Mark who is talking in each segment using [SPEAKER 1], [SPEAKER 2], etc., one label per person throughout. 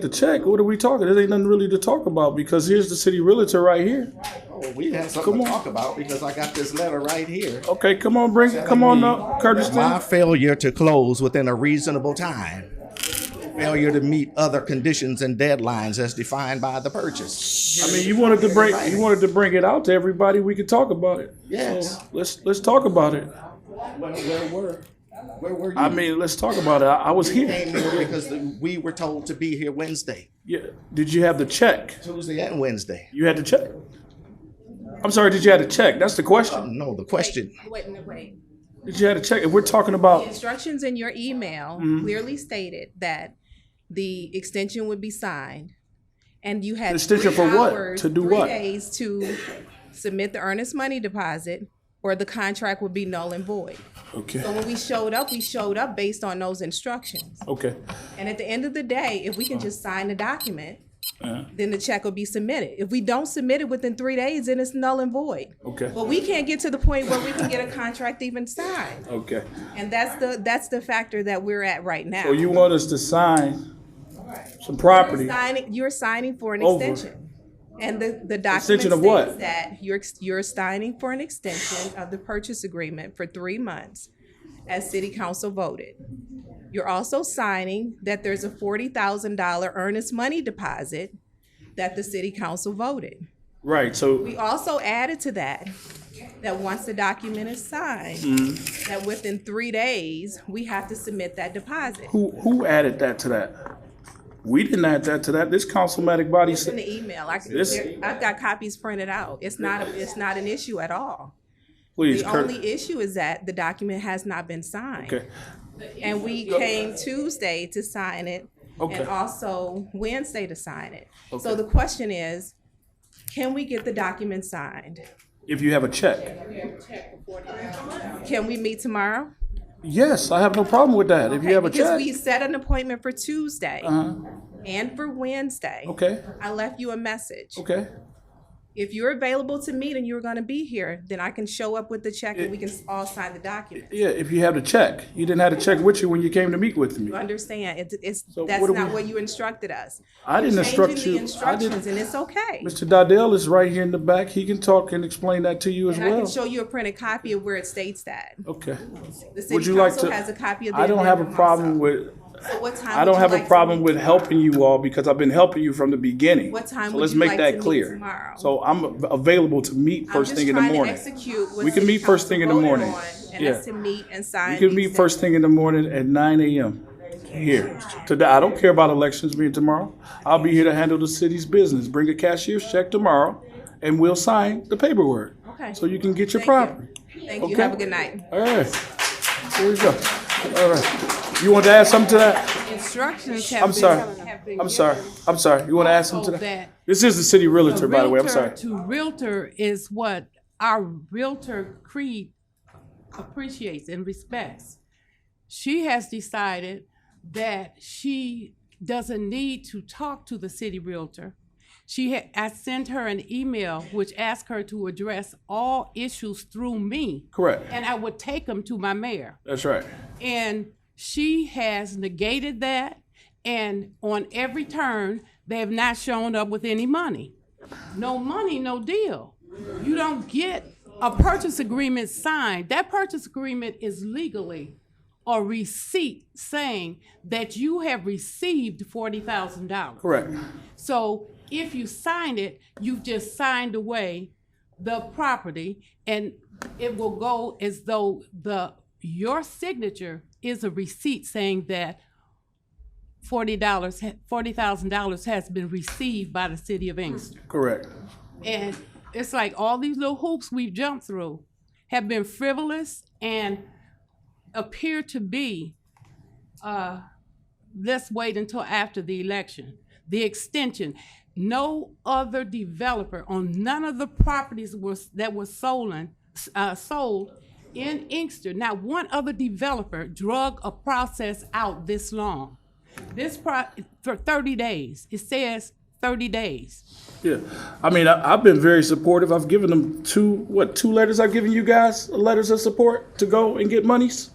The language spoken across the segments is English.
[SPEAKER 1] The check, what are we talking? There ain't nothing really to talk about because here's the city realtor right here.
[SPEAKER 2] Oh, we have something
[SPEAKER 1] Come
[SPEAKER 2] to
[SPEAKER 1] on.
[SPEAKER 2] talk about because I got this letter right here.
[SPEAKER 1] Okay, come on, bring it. Come on up, Curtis.
[SPEAKER 2] My
[SPEAKER 1] Then.
[SPEAKER 2] failure to close within a reasonable time. Failure to meet other conditions and deadlines as defined by the purchase.
[SPEAKER 1] I mean, you wanted to bring you wanted to bring it out to everybody. We could talk about it.
[SPEAKER 2] Yes.
[SPEAKER 1] So, let's let's talk about it.
[SPEAKER 2] Where, where were, where were you?
[SPEAKER 1] I mean, let's talk about it. I, I was here.
[SPEAKER 2] Came here because the- we were told to be here Wednesday,
[SPEAKER 1] Yeah. Did you have the check?
[SPEAKER 2] Tuesday and Wednesday.
[SPEAKER 1] You had the check. I'm sorry. Did you have the check? That's the question.
[SPEAKER 2] No, the question,
[SPEAKER 3] Wait, wait, wait.
[SPEAKER 1] Did you have the check? If we're talking about
[SPEAKER 3] Instructions in your email
[SPEAKER 1] Mm-hmm.
[SPEAKER 3] clearly stated that the extension would be signed, and you had
[SPEAKER 1] Extension
[SPEAKER 3] three
[SPEAKER 1] for what?
[SPEAKER 3] hours,
[SPEAKER 1] To do
[SPEAKER 3] three
[SPEAKER 1] what?
[SPEAKER 3] Days to submit the earnest money deposit, or the contract would be null and void.
[SPEAKER 1] okay,
[SPEAKER 3] So when we showed up, we showed up based on those instructions.
[SPEAKER 1] okay,
[SPEAKER 3] And at the end of the day, if we can just sign the document,
[SPEAKER 1] Uh-huh.
[SPEAKER 3] then the check will be submitted. If we don't submit it within three days, then it's null and void.
[SPEAKER 1] Okay.
[SPEAKER 3] But we can't get to the point where we can get a contract even signed.
[SPEAKER 1] okay.
[SPEAKER 3] And that's the, that's the factor that we're at right now.
[SPEAKER 1] Well, you want us to sign some property?
[SPEAKER 3] Signing, you're signing for an
[SPEAKER 1] Over.
[SPEAKER 3] extension. And the, the document
[SPEAKER 1] Extension of what?
[SPEAKER 3] states that you're, ex- you're signing for an extension of the purchase agreement for three months as city council voted. You're also signing that there's a forty thousand dollar earnest money deposit that the city council voted.
[SPEAKER 1] Right. So
[SPEAKER 3] We also added to that, that once the document is signed,
[SPEAKER 1] Mm-hmm.
[SPEAKER 3] that within three days, we have to submit that deposit.
[SPEAKER 1] who who added that to that? We didn't add that to that. This councilmatic body
[SPEAKER 3] It's
[SPEAKER 1] said.
[SPEAKER 3] in the email. I,
[SPEAKER 1] This-
[SPEAKER 3] there- I've got copies printed out. It's not, a- it's not an issue at all.
[SPEAKER 1] Please,
[SPEAKER 3] The
[SPEAKER 1] Kurt.
[SPEAKER 3] only issue is that the document has not been signed.
[SPEAKER 1] Okay.
[SPEAKER 3] And we came Tuesday to sign it
[SPEAKER 1] Okay.
[SPEAKER 3] and also Wednesday to sign it. So the question is, can we get the document signed?
[SPEAKER 1] If you have a check.
[SPEAKER 3] Can we meet tomorrow?
[SPEAKER 1] Yes, I have no problem with that. If you
[SPEAKER 3] Okay,
[SPEAKER 1] have a
[SPEAKER 3] because
[SPEAKER 1] check.
[SPEAKER 3] we set an appointment for Tuesday and for Wednesday.
[SPEAKER 1] Okay.
[SPEAKER 3] I left you a message.
[SPEAKER 1] Okay.
[SPEAKER 3] If you're available to meet and you're going to be here, then I can show up with the check and we can all sign the document.
[SPEAKER 1] Yeah, if you have the check. You didn't have a check with you when you came to meet with me.
[SPEAKER 3] You understand? It's, it's
[SPEAKER 1] So
[SPEAKER 3] that's
[SPEAKER 1] what do
[SPEAKER 3] not
[SPEAKER 1] we-
[SPEAKER 3] what you instructed us.
[SPEAKER 1] I didn't instruct
[SPEAKER 3] Changing
[SPEAKER 1] you. I
[SPEAKER 3] the
[SPEAKER 1] didn't.
[SPEAKER 3] instructions, and it's okay.
[SPEAKER 1] Mr. Didell is right here in the back. He can talk and explain that to you as
[SPEAKER 3] And I can
[SPEAKER 1] well.
[SPEAKER 3] show you a printed copy of where it states that.
[SPEAKER 1] Okay.
[SPEAKER 3] The
[SPEAKER 1] Oh,
[SPEAKER 3] city
[SPEAKER 1] Would you like
[SPEAKER 3] council
[SPEAKER 1] to?
[SPEAKER 3] has a copy of the.
[SPEAKER 1] I don't have a
[SPEAKER 3] amendment
[SPEAKER 1] problem
[SPEAKER 3] also.
[SPEAKER 1] with,
[SPEAKER 3] So what time
[SPEAKER 1] I
[SPEAKER 3] would
[SPEAKER 1] don't
[SPEAKER 3] you
[SPEAKER 1] have
[SPEAKER 3] like
[SPEAKER 1] a
[SPEAKER 3] to
[SPEAKER 1] problem
[SPEAKER 3] meet?
[SPEAKER 1] with helping you all because I've been helping you from the beginning.
[SPEAKER 3] What time
[SPEAKER 1] So
[SPEAKER 3] would
[SPEAKER 1] let's
[SPEAKER 3] you
[SPEAKER 1] make
[SPEAKER 3] like
[SPEAKER 1] that
[SPEAKER 3] to meet
[SPEAKER 1] clear.
[SPEAKER 3] tomorrow?
[SPEAKER 1] So I'm available to meet
[SPEAKER 3] I'm
[SPEAKER 1] first
[SPEAKER 3] just
[SPEAKER 1] thing in the
[SPEAKER 3] trying to
[SPEAKER 1] morning.
[SPEAKER 3] execute what
[SPEAKER 1] We can
[SPEAKER 3] city
[SPEAKER 1] meet first
[SPEAKER 3] council
[SPEAKER 1] thing in the
[SPEAKER 3] voted
[SPEAKER 1] morning.
[SPEAKER 3] on, And
[SPEAKER 1] Yeah.
[SPEAKER 3] that's to meet and sign.
[SPEAKER 1] You can
[SPEAKER 3] the
[SPEAKER 1] meet first
[SPEAKER 3] extension.
[SPEAKER 1] thing in the morning at nine AM here. Today, I don't care about elections being tomorrow. I'll be here to handle the city's business. Bring a cashier's check tomorrow and we'll sign the paperwork.
[SPEAKER 3] Okay.
[SPEAKER 1] So you can get your
[SPEAKER 3] Thank you.
[SPEAKER 1] property.
[SPEAKER 3] Thank you.
[SPEAKER 1] Okay.
[SPEAKER 3] Have a good night.
[SPEAKER 1] All right. Here we go. All right. You want to add something to that?
[SPEAKER 4] instructions have
[SPEAKER 1] I'm
[SPEAKER 4] been-
[SPEAKER 1] sorry.
[SPEAKER 4] have been
[SPEAKER 1] I'm sorry. I'm sorry. You want to add something to that? This is the city realtor, by the way. I'm sorry.
[SPEAKER 4] Realtor to realtor is what our realtor creed appreciates and respects. She has decided that she doesn't need to talk to the city realtor. She had, I sent her an email which asked her to address all issues through me.
[SPEAKER 1] Correct.
[SPEAKER 4] And I would take them to my mayor.
[SPEAKER 1] That's right.
[SPEAKER 4] And she has negated that. And on every turn, they have not shown up with any money. No money, no deal. You don't get a purchase agreement signed. That purchase agreement is legally a receipt saying that you have received $40,000.
[SPEAKER 1] Correct.
[SPEAKER 4] So if you sign it, you've just signed away the property and it will go as though the, your signature is a receipt saying that forty dollars, forty thousand dollars has been received by the city of Inkster.
[SPEAKER 1] Correct.
[SPEAKER 4] And it's like all these little hoops we've jumped through have been frivolous and appear to be, uh, let's wait until after the election. The extension, no other developer on none of the properties was, that were sold, uh, sold in Inkster, not one other developer drug a process out this long. This pro, for thirty days, it says thirty days.
[SPEAKER 1] Yeah, I mean, I, I've been very supportive. I've given them two, what, two letters? I've given you guys letters of support to go and get monies.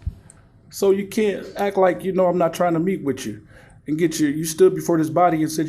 [SPEAKER 1] So you can't act like you know I'm not trying to meet with you. and get your, you stood before this body and said